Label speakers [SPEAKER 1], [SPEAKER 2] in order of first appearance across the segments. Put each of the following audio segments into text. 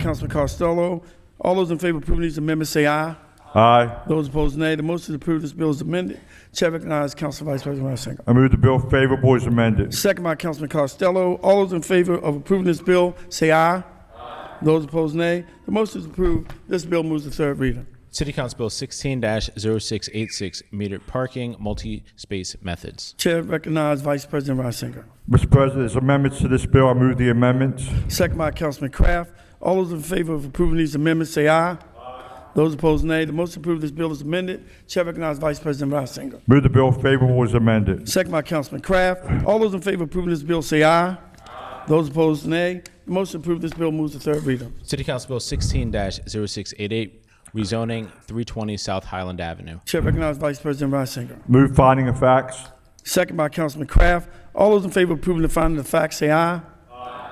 [SPEAKER 1] Councilman Costello. All those in favor of approving these amendments, say aye.
[SPEAKER 2] Aye.
[SPEAKER 1] Those opposed, nay. The motion to approve this bill is amended. Chair recognizes Council Vice President Ryan Singer.
[SPEAKER 2] I move the bill favorable as amended.
[SPEAKER 1] Second by Councilman Costello. All those in favor of approving this bill, say aye. Those opposed, nay. The motion is approved. This bill moves to third reader.
[SPEAKER 3] City Council Bill 16 0686, metered parking, multi space methods.
[SPEAKER 1] Chair recognizes Vice President Reisinger.
[SPEAKER 2] Mr. President, as amendments to this bill, I move the amendments.
[SPEAKER 1] Second by Councilman Kraft. All those in favor of approving these amendments, say aye. Those opposed, nay. The motion to approve this bill is amended. Chair recognizes Vice President Reisinger.
[SPEAKER 2] Move the bill favorable as amended.
[SPEAKER 1] Second by Councilman Kraft. All those in favor of approving this bill, say aye. Those opposed, nay. The motion to approve this bill moves to third reader.
[SPEAKER 3] City Council Bill 16 0688, rezoning 320 South Highland Avenue.
[SPEAKER 1] Chair recognizes Vice President Reisinger.
[SPEAKER 2] Move finding of facts.
[SPEAKER 1] Second by Councilman Kraft. All those in favor of approving the finding of facts, say aye.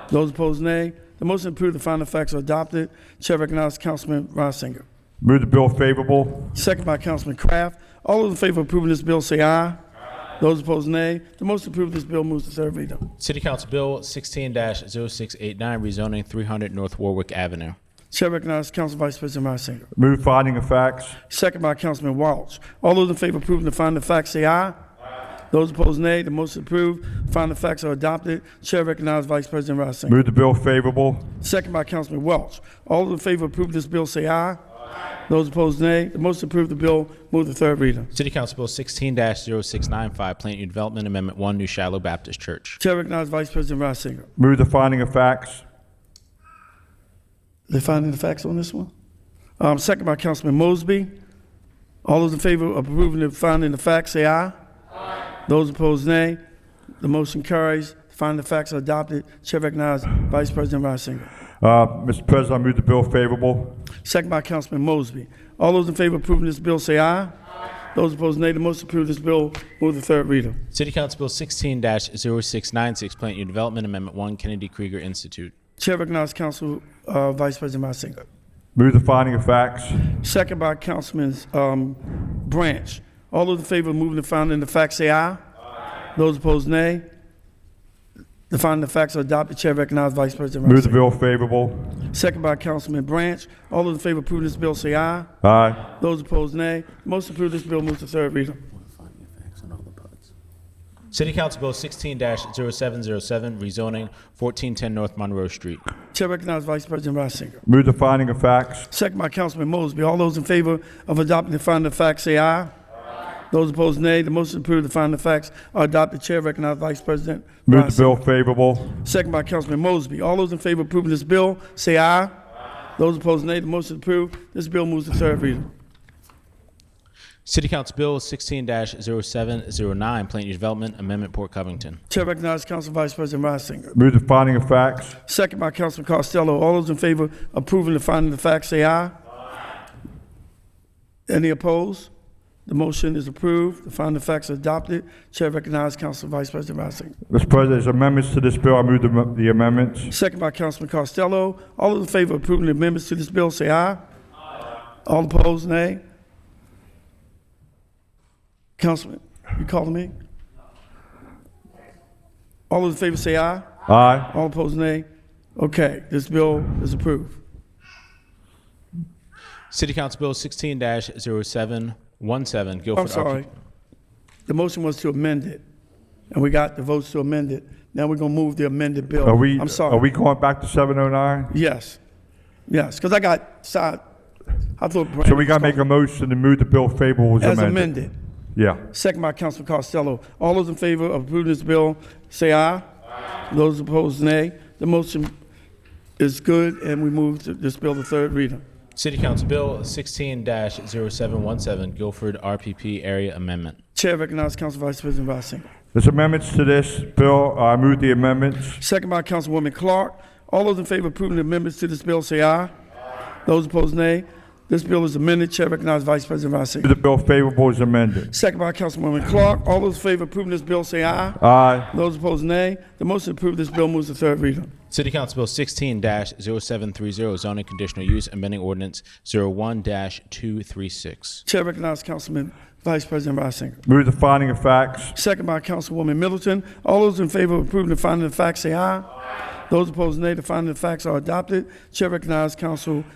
[SPEAKER 1] Those opposed, nay. The motion to approve the finding of facts are adopted. Chair recognizes Councilman Reisinger.
[SPEAKER 2] Move the bill favorable.
[SPEAKER 1] Second by Councilman Kraft. All those in favor of approving this bill, say aye. Those opposed, nay. The motion to approve this bill moves to third reader.
[SPEAKER 3] City Council Bill 16 0689, rezoning 300 North Warwick Avenue.
[SPEAKER 1] Chair recognizes Council Vice President Reisinger.
[SPEAKER 2] Move finding of facts.
[SPEAKER 1] Second by Councilman Walsh. All those in favor of approving the finding of facts, say aye. Those opposed, nay. The motion is approved. Finding of facts are adopted. Chair recognizes Vice President Reisinger.
[SPEAKER 2] Move the bill favorable.
[SPEAKER 1] Second by Councilman Welch. All those in favor of approving this bill say aye. Those opposed, nay. The motion to approve the bill move to third reader.
[SPEAKER 3] City Council Bill 16 0695, Plant New Development Amendment 1, New Shallow Baptist Church.
[SPEAKER 1] Chair recognizes Vice President Reisinger.
[SPEAKER 2] Move the finding of facts.
[SPEAKER 1] They finding the facts on this one? Um, second by Councilman Mosby. All those in favor of approving the finding the facts say aye. Those opposed, nay. The motion carries. Finding the facts are adopted. Chair recognizes Vice President Reisinger.
[SPEAKER 2] Uh, Mr. President, I move the bill favorable.
[SPEAKER 1] Second by Councilman Mosby. All those in favor of approving this bill say aye. Those opposed, nay. The motion to approve this bill move to third reader.
[SPEAKER 3] City Council Bill 16 0696, Plant New Development Amendment 1, Kennedy Krieger Institute.
[SPEAKER 1] Chair recognizes Council uh, Vice President Reisinger.
[SPEAKER 2] Move the finding of facts.
[SPEAKER 1] Second by Councilman um, Branch. All those in favor of moving the finding of facts, say aye. Those opposed, nay. The finding of facts are adopted. Chair recognizes Vice President
[SPEAKER 2] Move the
[SPEAKER 1] Reisinger.
[SPEAKER 2] bill favorable.
[SPEAKER 1] Second by Councilman Branch. All those in favor of approving this bill, say aye.
[SPEAKER 2] Aye.
[SPEAKER 1] Those opposed, nay. Motion to approve this bill moves to third reader.
[SPEAKER 3] City Council Bill 16 0707, rezoning 1410 North Monroe Street.
[SPEAKER 1] Chair recognizes Vice President Reisinger.
[SPEAKER 2] Move the finding of facts.
[SPEAKER 1] Second by Councilman Mosby. All those in favor of adopting the finding of facts, say aye. Those opposed, nay. The motion to approve the finding of facts are adopted. Chair recognizes Vice President
[SPEAKER 2] Move the
[SPEAKER 1] Reisinger.
[SPEAKER 2] bill favorable.
[SPEAKER 1] Second by Councilman Mosby. All those in favor of approving this bill, say aye. Those opposed, nay. The motion is approved. This bill moves to third reader.
[SPEAKER 3] City Council Bill oh 16 0709, Plant New Development Amendment Port Covington.
[SPEAKER 1] Chair recognizes Council Vice President Reisinger.
[SPEAKER 2] Move the finding of facts.
[SPEAKER 1] Second by Councilman Costello. All those in favor of approving the finding of facts, say aye. Any opposed? The motion is approved. The finding of facts are adopted. Chair recognizes Council Vice President Reisinger.
[SPEAKER 2] Mr. President, as amendments to this bill, I move the the amendments.
[SPEAKER 1] Second by Councilman Costello. All those in favor of approving the amendments to this bill, say aye. All opposed, nay. Councilman, you calling me? All those in favor say aye.
[SPEAKER 2] Aye.
[SPEAKER 1] All opposed, nay. Okay, this bill is approved.
[SPEAKER 3] City Council Bill oh 16 0717, Guilford.
[SPEAKER 1] Oh, I'm sorry. The motion was to amend it, and we got the votes to amend it. Now we're gonna move the amended bill.
[SPEAKER 2] Are we,
[SPEAKER 1] Oh, I'm sorry.
[SPEAKER 2] are we going back to 709?
[SPEAKER 1] Yes, yes, because I got side, I thought.
[SPEAKER 2] So we got to make a motion to move the bill favorable as
[SPEAKER 1] As
[SPEAKER 2] amended.
[SPEAKER 1] amended.
[SPEAKER 2] Yeah.
[SPEAKER 1] Second by Councilman Costello. All those in favor of approving this bill, say aye. Those opposed, nay. The motion is good, and we move to this bill to third reader.
[SPEAKER 3] City Council Bill oh 16 0717, Guilford RPP Area Amendment.
[SPEAKER 1] Chair recognizes Council Vice President Reisinger.
[SPEAKER 2] There's amendments to this bill. I move the amendments.
[SPEAKER 1] Second by Councilwoman Clark. All those in favor of approving the amendments to this bill, say aye. Those opposed, nay. This bill is amended. Chair recognizes Vice President
[SPEAKER 2] Move
[SPEAKER 1] Reisinger.
[SPEAKER 2] the bill favorable as amended.
[SPEAKER 1] Second by Councilwoman Clark. All those in favor of approving this bill, say aye.
[SPEAKER 2] Aye.
[SPEAKER 1] Those opposed, nay. The motion to approve this bill moves to third reader.
[SPEAKER 3] City Council Bill oh 16 0730, zoning conditional use amending ordinance 01 236.
[SPEAKER 1] Chair recognizes Councilman Vice President Reisinger.
[SPEAKER 2] Move the finding of facts.
[SPEAKER 1] Second by Councilwoman Middleton. All those in favor of approving the finding of facts, say aye. Those opposed, nay. The finding of facts are adopted. Chair recognizes Council